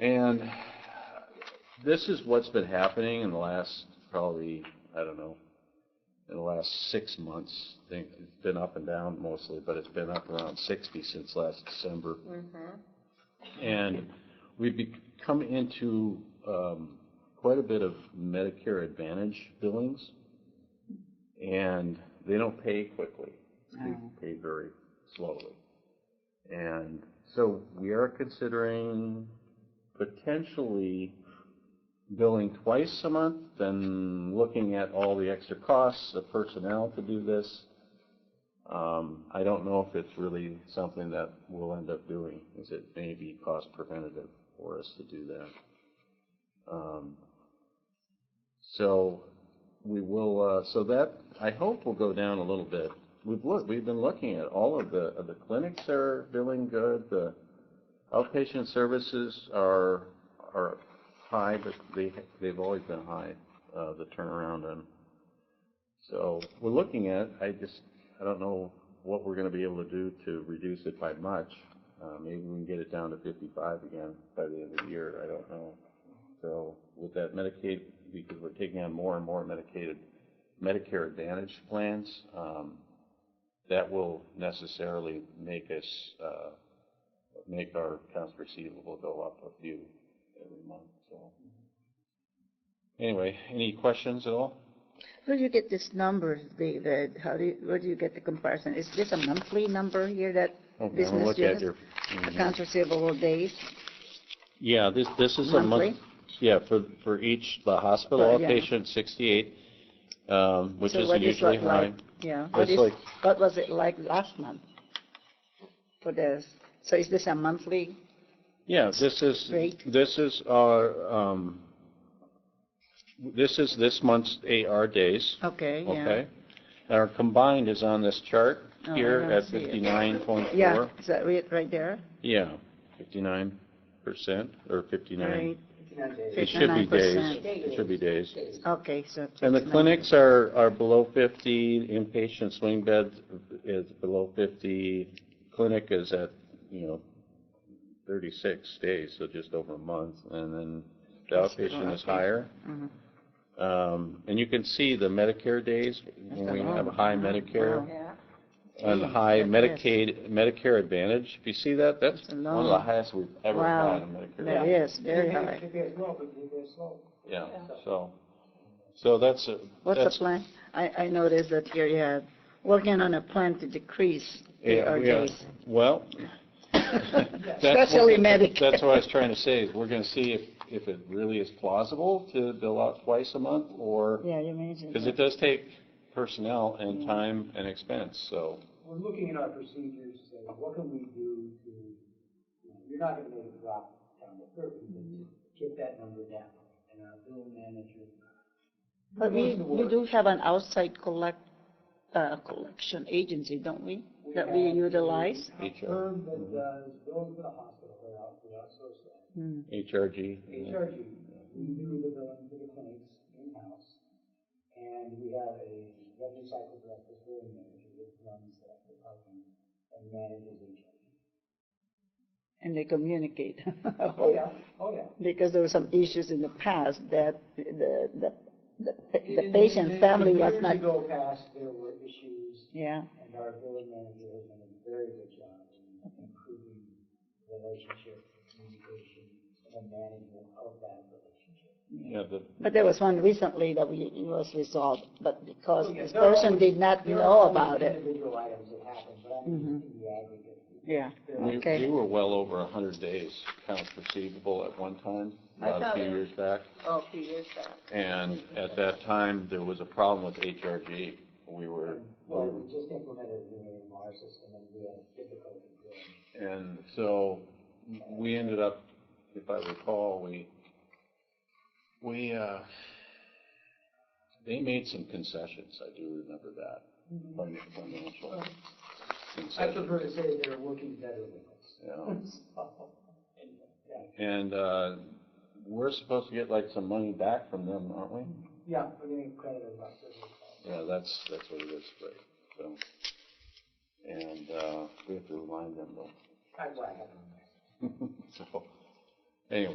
And this is what's been happening in the last probably, I don't know, in the last six months. I think it's been up and down mostly, but it's been up around 60 since last December. And we've be- come into um, quite a bit of Medicare Advantage billings, and they don't pay quickly. They pay very slowly. And so we are considering potentially billing twice a month, then looking at all the extra costs of personnel to do this. Um, I don't know if it's really something that we'll end up doing, is it may be cost preventative for us to do that. Um, So we will, uh, so that, I hope will go down a little bit. We've looked, we've been looking at all of the, of the clinics are billing good, the outpatient services are, are high, but they, they've always been high, uh, the turnaround on. So we're looking at, I just, I don't know what we're gonna be able to do to reduce it by much. Uh, maybe we can get it down to fifty-five again by the end of the year, I don't know. So with that Medicaid, because we're taking on more and more Medicaid, Medicare Advantage plans, um, that will necessarily make us, uh, make our accounts receivable go up a few every month, so. Mm-hmm. Anyway, any questions at all? Where do you get this number, David? How do you, where do you get the comparison? Is this a monthly number here that Okay, I'm gonna business Oh, look at units, your. accounts receivable days, Yeah, this, this is a monthly? month, yeah, for, for each, the hospital Oh, yeah. outpatient, sixty-eight, um, which So is what is usually that like? high. Yeah, That's what is, like- what was it like last month for this? So is this a monthly? Yeah, this is, Rate. this is our, um, this is this month's AR days, Okay, okay? Our combined is on this chart Oh, I here don't at see it. fifty-nine point Yeah, four. is that right, right there? Yeah, fifty-nine percent, or fifty-nine. Right, It should be days, 59%. it should be days. okay, so. And the 59. clinics are, are below 50, inpatient swing beds is below 50, clinic is at, you know, 36 days, so just over a month, and then the Hospital outpatient is outpatient. higher. Mhm. Um, And you can see the Medicare days, when That's we a have lot. high Wow. Medicare Wow. and Gee, high that Mm, is. Medicaid, Medicare Advantage. If you see that, that's That's a one of the lot. highest we've ever Wow, had in Medicare. that is very high. Yeah, so, so that's, a- What's the that's plan? I, I noticed that here you have, working on a plan to decrease Yeah, AR we are. days. Well. that's what- Especially Medicare. That's what I was trying to say, is we're gonna see if, if it really is plausible to bill out twice a month, or, Yeah, you mentioned because it that. does take personnel and time and expense, so. We're looking at our procedures, to say, what can we do to, you know, you're not gonna make it drop down to thirty, but get that number down. And our bill manager. But we, doing the we work. do have an outside collect, uh, collection agency, don't we? That we have a utilize? HR, uh, Firm that does, bills for the hospital, they're out, we outsource that. Hmm. HRG. HRG, we do the billing for the clinics in-house. And we have a revenue cycle director, billing manager, that runs that department and manages HRG. And they communicate. Oh, yeah, oh, yeah. Because there were some issues in the past that the, the, the the patient's family was not, Years ago past, there were issues, yeah. and our village manager has done a very good job in improving relationship, communication, and the management of that relationship. Yeah, the, But there was one recently that we, it was resolved, but because Oh, yeah, this there are person always- did not there are know always about it. Mm-hmm. Individual items that happen, but I mean, in the aggregate. Yeah, there are- we, Okay. we were well over a hundred days accounts receivable at one time, I about a thought few it- years back. Oh, a few years back. And at that time, there was a problem with HRG. We were, we Well, were we just implemented a new AMR system, and we had difficulty doing it. And so we ended up, if I recall, we, we, uh, they made some concessions, I do remember that, Mm-hmm. fin- financial I prefer concessions. to say they're working better with us. Yeah. So, anyway, yeah. And, uh, we're supposed to get like some money back from them, aren't we? Yeah, we're getting credit about this. Yeah, that's, that's what it is, right, so. And, uh, we have to remind them though, 嗯 That's why I have it on there. so, anyway.